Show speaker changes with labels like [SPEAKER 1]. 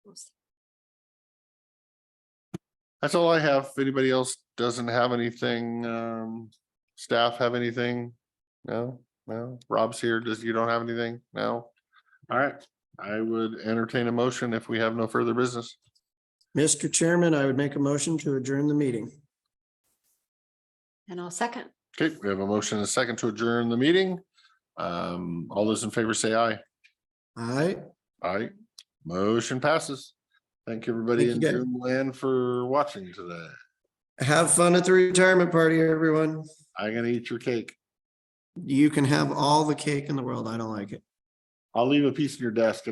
[SPEAKER 1] That's all I have. If anybody else doesn't have anything, um, staff have anything? No, no. Rob's here. Does, you don't have anything? No? All right, I would entertain a motion if we have no further business.
[SPEAKER 2] Mr. Chairman, I would make a motion to adjourn the meeting.
[SPEAKER 3] And I'll second.
[SPEAKER 1] Okay, we have a motion and a second to adjourn the meeting. Um, all those in favor say aye.
[SPEAKER 2] All right,
[SPEAKER 1] Aye. Motion passes. Thank you, everybody in
[SPEAKER 2] Thank you, guys.
[SPEAKER 1] Zoom land for watching today.
[SPEAKER 2] have fun at the retirement party, everyone.
[SPEAKER 1] I'm gonna eat your cake.
[SPEAKER 2] You can have all the cake in the world. I don't like it.
[SPEAKER 1] I'll leave a piece in your desk.